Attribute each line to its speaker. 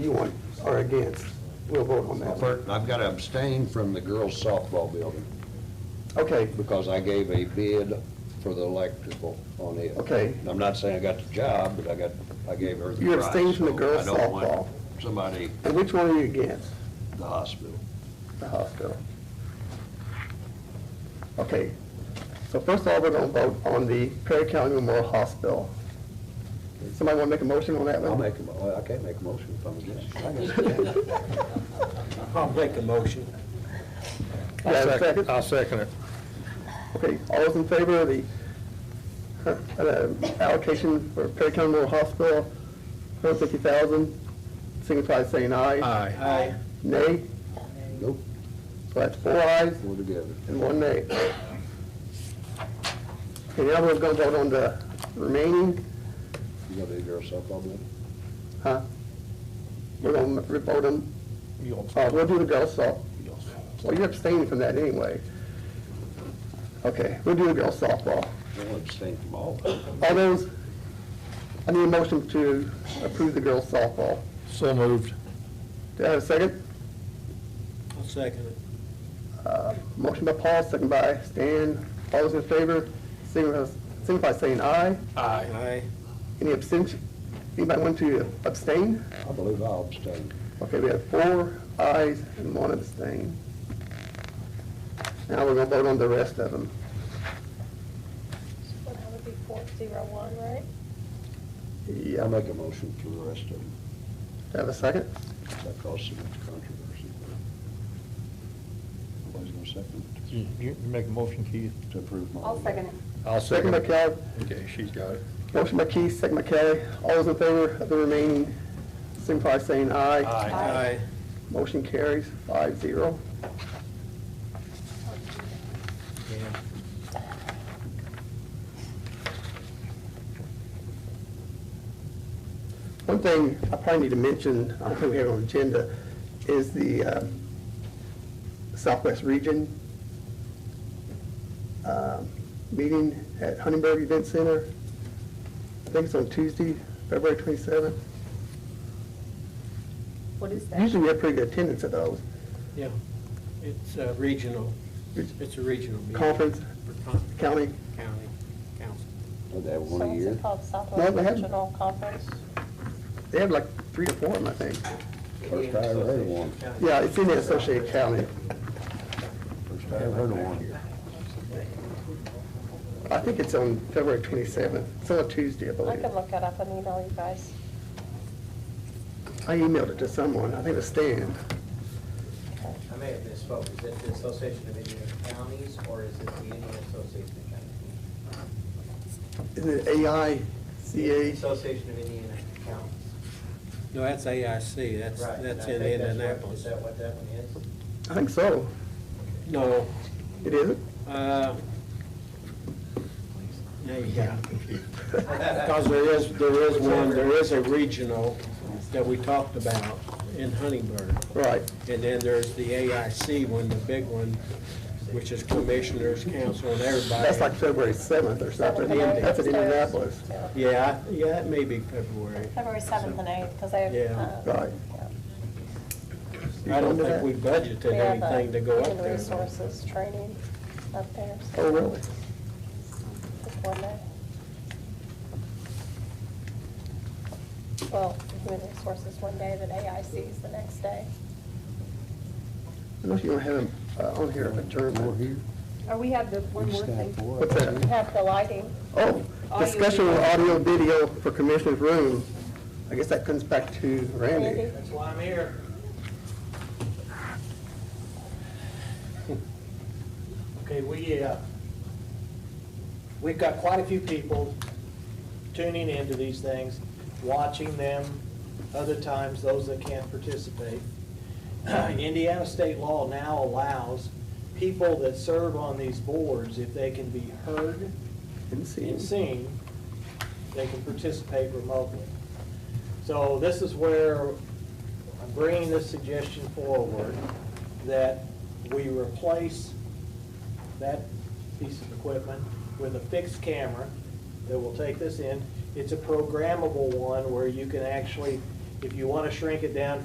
Speaker 1: you want or against, we'll vote on that. one.
Speaker 2: First, I've got to abstain from the girls softball building
Speaker 1: Okay,
Speaker 2: because I gave a bid for the electrical on it.
Speaker 1: Okay.
Speaker 2: I'm not saying I got the job, but I got, I gave her the price.
Speaker 1: You abstained from the
Speaker 2: so
Speaker 1: girls'
Speaker 2: I don't want
Speaker 1: softball.
Speaker 2: Somebody,
Speaker 1: and which one are you against?
Speaker 2: at the hospital.
Speaker 1: The hospital. Okay, so first of all, we're gonna vote on the Perry County Memorial Hospital. Somebody wanna make a motion on that one?
Speaker 2: I'll make a, mo- well, I can't make a motion if I'm against it. I guess.
Speaker 3: I'll make a motion.
Speaker 1: Do I have a second?
Speaker 4: I'll second it.
Speaker 1: Okay, all those in favor of the uh, uh, allocation for Perry County Memorial Hospital, hundred fifty thousand, signify by saying aye.
Speaker 4: Aye.
Speaker 3: Aye.
Speaker 1: Nay,
Speaker 2: Nope,
Speaker 1: so that's four ayes.
Speaker 2: we're together.
Speaker 1: and one nay. Okay, now we're gonna vote on the remaining,
Speaker 2: You got the girls softball building?
Speaker 1: huh? We're gonna re- vote on,
Speaker 4: You'll-
Speaker 1: uh, we'll do the girls' soft,
Speaker 4: you'll-
Speaker 1: well, you're abstaining from that anyway. Okay, we'll do the girls' softball.
Speaker 2: I want to abstain from all of them.
Speaker 1: All those, I need a motion to approve the girls' softball.
Speaker 4: So moved.
Speaker 1: Do I have a second?
Speaker 3: I'll second it.
Speaker 1: Uh, Motion by Paul, second by Stan. All those in favor, signify signify by saying aye.
Speaker 3: Aye.
Speaker 1: Any abstention, anybody want to abstain?
Speaker 2: I believe I'll abstain.
Speaker 1: Okay, we have four ayes and one abstain. Now we're gonna vote on the rest of them.
Speaker 5: Well, that would be four zero one, right?
Speaker 1: Yeah,
Speaker 2: I'll make a motion for the rest of them.
Speaker 1: have a second?
Speaker 2: That caused so much controversy. Nobody's going to second it.
Speaker 4: You you make a motion, Keith?
Speaker 2: to approve my.
Speaker 6: I'll second it.
Speaker 4: I'll
Speaker 1: Second by Kelly,
Speaker 4: Okay, she's got it.
Speaker 1: motion by Keith, second by Kelly. All those in favor of the remaining, signify by saying aye.
Speaker 3: Aye.
Speaker 1: Motion carries five zero. One thing I probably need to mention, I don't think we have it on the agenda, is the uh, Southwest Region um, meeting at Huntingburg Event Center. I think it's on Tuesday, February 27th.
Speaker 6: What is that?
Speaker 1: Usually we have pretty good attendance at those.
Speaker 3: Yeah, it's uh, regional, it's a regional meeting.
Speaker 1: Conference,
Speaker 3: For con-
Speaker 1: county,
Speaker 3: County council.
Speaker 2: Did that
Speaker 5: So
Speaker 2: one a
Speaker 5: what's
Speaker 2: year?
Speaker 5: it called,
Speaker 1: No,
Speaker 5: Southwest
Speaker 1: they haven't.
Speaker 5: Regional Conference?
Speaker 1: they have like three or four of them, I think.
Speaker 2: First I ever heard of one.
Speaker 1: Yeah, it's in the Associated County.
Speaker 2: First I ever heard of one.
Speaker 1: I think it's on February 27th. It's on a Tuesday, I
Speaker 5: I
Speaker 1: believe.
Speaker 5: can look it up and email you guys.
Speaker 1: I emailed it to someone, I think it was Stan.
Speaker 7: I may have misspoke, is it the Association of Indian Counties, or is it the Indian Association of Counties?
Speaker 1: Isn't it AICA?
Speaker 7: Association of Indian Counties.
Speaker 3: No, that's AIC, that's,
Speaker 7: Right,
Speaker 3: that's
Speaker 7: and I think
Speaker 3: in
Speaker 7: that's what- Is
Speaker 3: Indianapolis.
Speaker 7: that what that one is?
Speaker 1: I think so.
Speaker 3: No,
Speaker 1: It isn't?
Speaker 3: uh, yeah, you got it confused. Because there is, there is one, there is a regional that we talked about in Huntingburg.
Speaker 1: Right.
Speaker 3: And then there's the AIC one, the big one, which is commissioners, council, and everybody.
Speaker 1: That's like February 7th or something.
Speaker 5: Seventh and eighth
Speaker 1: That's at
Speaker 5: upstairs.
Speaker 1: Indianapolis.
Speaker 5: Yeah.
Speaker 3: Yeah, I- yeah, it may be February.
Speaker 5: February seventh and eighth, because they have.
Speaker 3: Yeah.
Speaker 5: uh,
Speaker 1: Right.
Speaker 5: yeah.
Speaker 3: I don't
Speaker 1: remember that?
Speaker 3: think we budgeted
Speaker 5: We have, uh,
Speaker 3: anything to go up
Speaker 5: Human
Speaker 3: there.
Speaker 5: resources training up there. so
Speaker 1: Oh, really?
Speaker 5: just one day. Well, human resources one day, but AIC is the next day.
Speaker 1: I know you don't have them uh, on here, adjournment.
Speaker 2: here?
Speaker 6: Or we have the one more thing.
Speaker 1: What's
Speaker 5: We
Speaker 1: that?
Speaker 5: have the lighting.
Speaker 1: Oh, discussion of audio video for Commissioner's Room. I guess that comes back to Randy.
Speaker 5: Randy?
Speaker 7: That's why I'm here.
Speaker 8: Okay, we, uh, we've got quite a few people tuning into these things, watching them, other times those that can't participate. Indiana state law now allows people that serve on these boards, if they can be heard
Speaker 1: Didn't see him.
Speaker 8: and seen, they can participate remotely. So this is where I'm bringing this suggestion forward, that we replace that piece of equipment with a fixed camera that will take this in. It's a programmable one where you can actually If you want to shrink it down